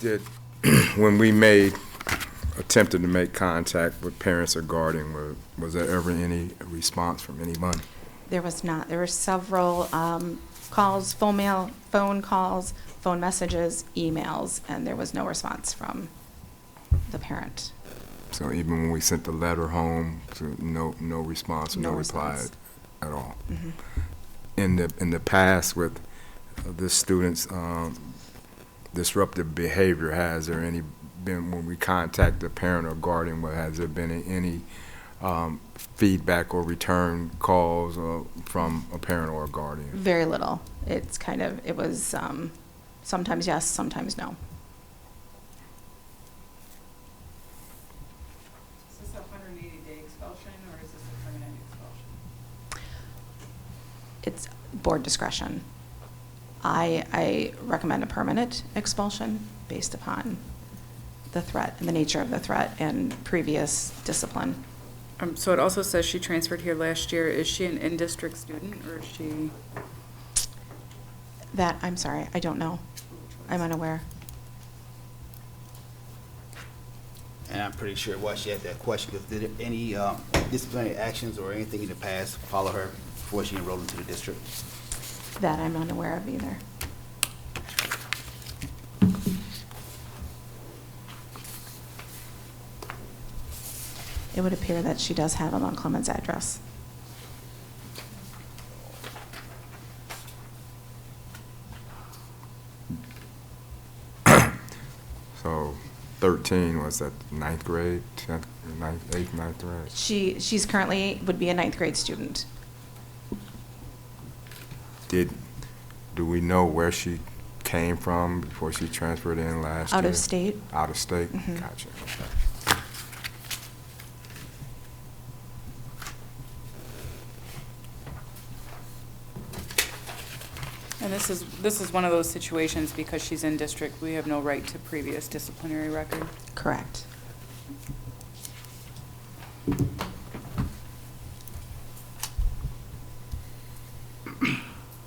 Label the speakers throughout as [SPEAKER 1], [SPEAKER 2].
[SPEAKER 1] Did, when we made, attempted to make contact with parents or guardian, were- was there ever any response from anyone?
[SPEAKER 2] There was not. There were several um, calls, phone mail, phone calls, phone messages, emails, and there was no response from the parent.
[SPEAKER 1] So even when we sent the letter home, so no, no response, no
[SPEAKER 2] No
[SPEAKER 1] reply
[SPEAKER 2] response. Mm-hmm.
[SPEAKER 1] at all? In the, in the past with the students' um, disruptive behavior, has there any, been, when we contact the parent or guardian, what- has there been any um, feedback or return calls uh, from a parent or a guardian?
[SPEAKER 2] Very little. It's kind of, it was um, sometimes yes, sometimes no.
[SPEAKER 3] Is this a hundred and eighty day expulsion or is this a permanent expulsion?
[SPEAKER 2] It's board discretion. I, I recommend a permanent expulsion based upon the threat and the nature of the threat and previous discipline.
[SPEAKER 3] Um, so it also says she transferred here last year. Is she an in-district student or is she?
[SPEAKER 2] That, I'm sorry, I don't know. I'm unaware.
[SPEAKER 4] And I'm pretty sure why she asked that question, because did any um, disciplinary actions or anything in the past follow her before she enrolled into the district?
[SPEAKER 2] That I'm unaware of either. It would appear that she does have a Mount Clemens address.
[SPEAKER 1] So thirteen was that ninth grade, tenth, ninth, eighth, ninth grade?
[SPEAKER 2] She, she's currently, would be a ninth grade student.
[SPEAKER 1] Did, do we know where she came from before she transferred in last year?
[SPEAKER 2] Out of state?
[SPEAKER 1] Out of state?
[SPEAKER 2] Mhm.
[SPEAKER 1] Gotcha. Okay.
[SPEAKER 3] And this is, this is one of those situations because she's in district, we have no right to previous disciplinary record.
[SPEAKER 2] Correct.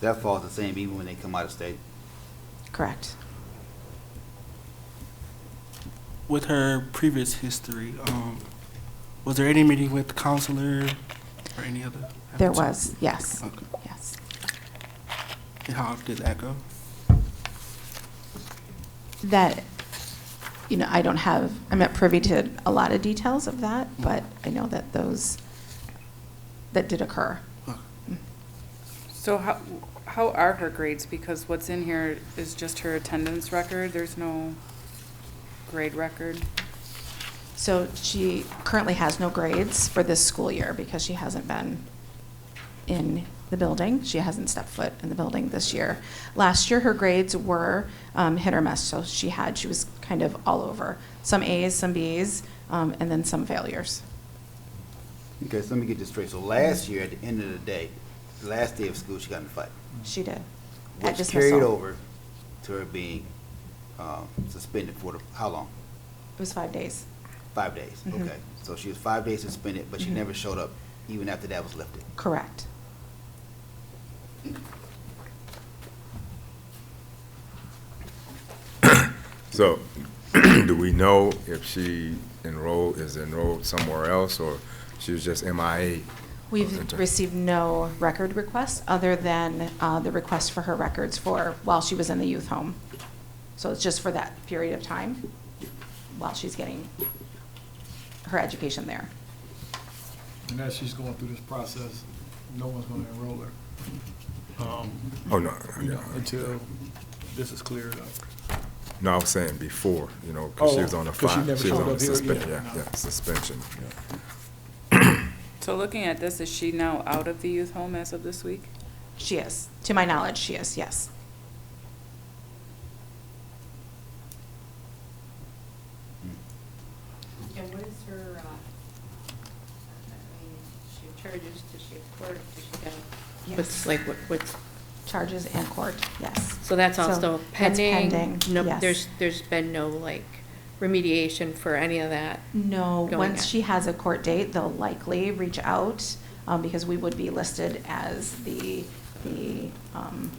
[SPEAKER 4] That falls the same even when they come out of state.
[SPEAKER 2] Correct.
[SPEAKER 5] with her previous history, um, was there any meeting with the counselor or any other?
[SPEAKER 2] There was, yes,
[SPEAKER 5] Okay.
[SPEAKER 2] yes.
[SPEAKER 5] And how did that go?
[SPEAKER 2] That, you know, I don't have, I'm not privy to a lot of details of that, but I know that those, that did occur. Mm.
[SPEAKER 5] Okay.
[SPEAKER 3] So how, how are her grades? Because what's in here is just her attendance record. There's no grade record.
[SPEAKER 2] So she currently has no grades for this school year because she hasn't been in the building. She hasn't stepped foot in the building this year. Last year, her grades were um, hit or miss, so she had, she was kind of all over. Some As, some Bs, um, and then some failures.
[SPEAKER 4] Okay, so let me get this straight. So last year, at the end of the day, the last day of school, she got in a fight.
[SPEAKER 2] She did. At
[SPEAKER 4] Which
[SPEAKER 2] dismissal.
[SPEAKER 4] carried over to her being um, suspended for the, how long?
[SPEAKER 2] It was five days.
[SPEAKER 4] Five days,
[SPEAKER 2] Mhm.
[SPEAKER 4] okay. So she was five days suspended, but she
[SPEAKER 2] Mhm.
[SPEAKER 4] never showed up even after that was lifted.
[SPEAKER 2] Correct.
[SPEAKER 1] So, do we know if she enrolled, is enrolled somewhere else, or she was just MIA?
[SPEAKER 2] We've
[SPEAKER 1] Okay.
[SPEAKER 2] received no record requests other than uh, the request for her records for, while she was in the youth home. So it's just for that period of time while she's getting her education there.
[SPEAKER 6] And as she's going through this process, no one's gonna enroll her. um,
[SPEAKER 1] Oh, no,
[SPEAKER 6] You
[SPEAKER 1] no,
[SPEAKER 6] know, until this is cleared up.
[SPEAKER 1] no, I was saying before, you know, because she was
[SPEAKER 6] Oh,
[SPEAKER 1] on a
[SPEAKER 6] 'cause she
[SPEAKER 1] five,
[SPEAKER 6] never
[SPEAKER 1] she was
[SPEAKER 6] showed
[SPEAKER 1] on
[SPEAKER 6] up here,
[SPEAKER 1] suspension,
[SPEAKER 6] yeah,
[SPEAKER 1] yeah,
[SPEAKER 6] no.
[SPEAKER 1] yeah, suspension.
[SPEAKER 3] So looking at this, is she now out of the youth home as of this week?
[SPEAKER 2] She is, to my knowledge, she is, yes.
[SPEAKER 7] And what is her, uh, I mean, she charges, does she have court, does she go?
[SPEAKER 2] Yes.
[SPEAKER 7] What's like, what, what's,
[SPEAKER 2] Charges in court, yes.
[SPEAKER 7] so that's
[SPEAKER 2] So
[SPEAKER 7] also
[SPEAKER 2] that's
[SPEAKER 7] pending?
[SPEAKER 2] pending,
[SPEAKER 7] No,
[SPEAKER 2] yes.
[SPEAKER 7] there's, there's been no like remediation for any of that?
[SPEAKER 2] No,
[SPEAKER 7] going
[SPEAKER 2] once
[SPEAKER 7] in.
[SPEAKER 2] she has a court date, they'll likely reach out, um, because we would be listed as the, the, um,